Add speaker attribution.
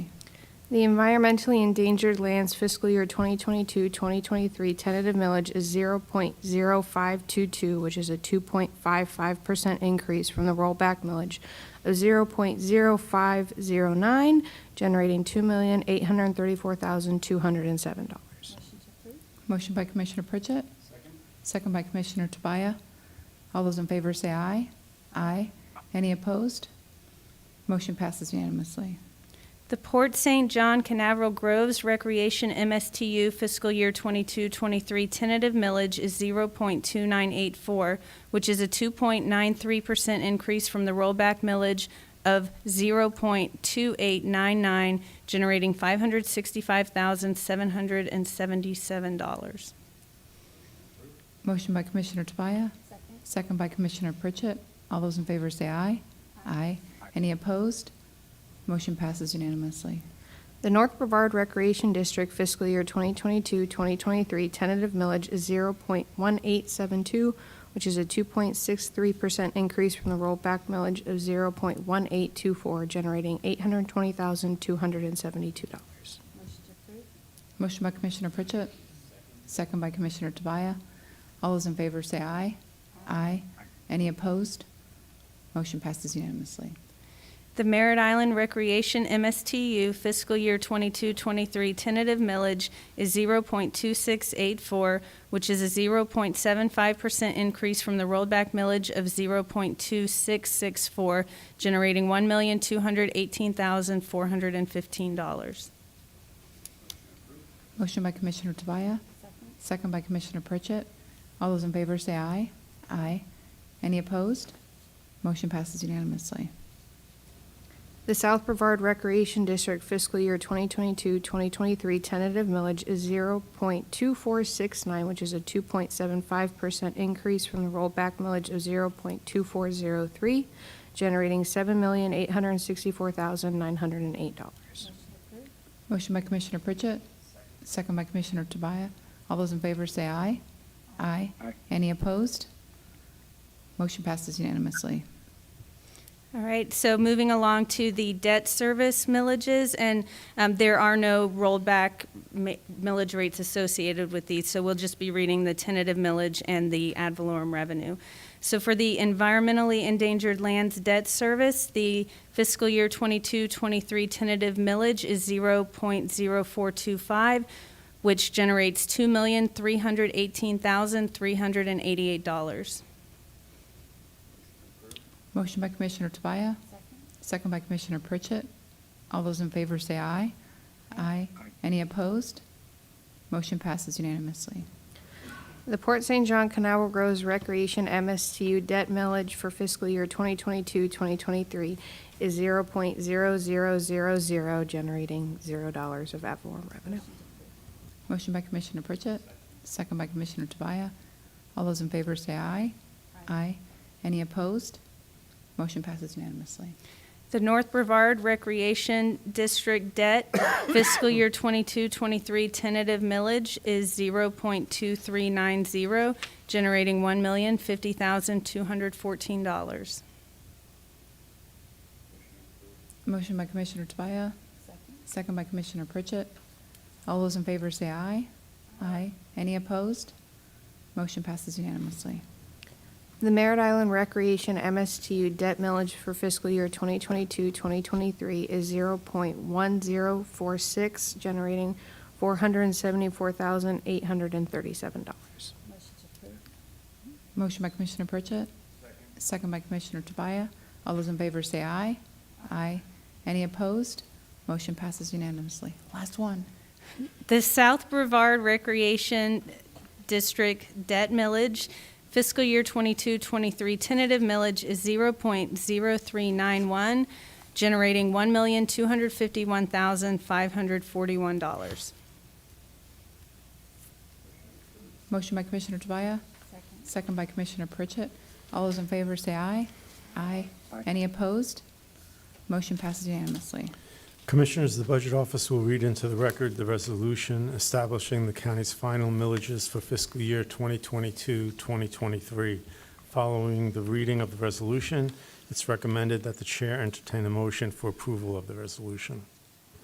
Speaker 1: The environmentally endangered lands fiscal year 2022-2023 tentative millage is 0.0522, which is a 2.55% increase from the rollback millage of 0.0509, generating $2,834,207.
Speaker 2: Motion by Commissioner Pritchett. Second by Commissioner Tobias. All those in favor say aye. Aye. Any opposed? Motion passes unanimously.
Speaker 3: The Port St. John Canaveral Groves Recreation MSTU fiscal year 22-23 tentative millage is 0.2984, which is a 2.93% increase from the rollback millage of 0.2899, generating $565,777.
Speaker 2: Motion by Commissioner Tobias.
Speaker 1: Second.
Speaker 2: Second by Commissioner Pritchett. All those in favor say aye. Aye. Any opposed? Motion passes unanimously.
Speaker 1: The North Brevard Recreation District fiscal year 2022-2023 tentative millage is 0.1872, which is a 2.63% increase from the rollback millage of 0.1824, generating $820,272.
Speaker 2: Motion by Commissioner Pritchett. Second by Commissioner Tobias. All those in favor say aye. Aye. Any opposed? Motion passes unanimously.
Speaker 3: The Merritt Island Recreation MSTU fiscal year 22-23 tentative millage is 0.2684, which is a 0.75% increase from the rollback millage of 0.2664, generating $1,218,415.
Speaker 2: Motion by Commissioner Tobias. Second by Commissioner Pritchett. All those in favor say aye. Aye. Any opposed? Motion passes unanimously.
Speaker 1: The South Brevard Recreation District fiscal year 2022-2023 tentative millage is 0.2469, which is a 2.75% increase from the rollback millage of 0.2403, generating $7,864,908.
Speaker 2: Motion by Commissioner Pritchett. Second by Commissioner Tobias. All those in favor say aye. Aye. Any opposed? Motion passes unanimously.
Speaker 3: All right, so moving along to the debt service millages, and um, there are no rollback mi- millage rates associated with these, so we'll just be reading the tentative millage and the ad valorem revenue. So for the environmentally endangered lands debt service, the fiscal year 22-23 tentative millage is 0.0425, which generates $2,318,388.
Speaker 2: Motion by Commissioner Tobias. Second by Commissioner Pritchett. All those in favor say aye. Aye. Any opposed? Motion passes unanimously.
Speaker 1: The Port St. John Canal Groves Recreation MSTU debt millage for fiscal year 2022-2023 is 0.0000, generating $0 of ad valorem revenue.
Speaker 2: Motion by Commissioner Pritchett, second by Commissioner Tobias. All those in favor say aye. Aye. Any opposed? Motion passes unanimously.
Speaker 3: The North Brevard Recreation District debt fiscal year 22-23 tentative millage is 0.2390, generating $1,050,214.
Speaker 2: Motion by Commissioner Tobias, second by Commissioner Pritchett. All those in favor say aye. Aye. Any opposed? Motion passes unanimously.
Speaker 1: The Merritt Island Recreation MSTU debt millage for fiscal year 2022-2023 is 0.1046, generating $474,837.
Speaker 2: Motion by Commissioner Pritchett, second by Commissioner Tobias. All those in favor say aye. Aye. Any opposed? Motion passes unanimously. Last one.
Speaker 3: The South Brevard Recreation District debt millage fiscal year 22-23 tentative millage is 0.0391, generating $1,251,541.
Speaker 2: Motion by Commissioner Tobias. Second by Commissioner Pritchett. All those in favor say aye. Aye. Any opposed? Motion passes unanimously.
Speaker 4: Commissioners, the Budget Office will read into the record the resolution establishing the county's final millages for fiscal year 2022-2023. Following the reading of the resolution, it's recommended that the Chair entertain a motion for approval of the resolution.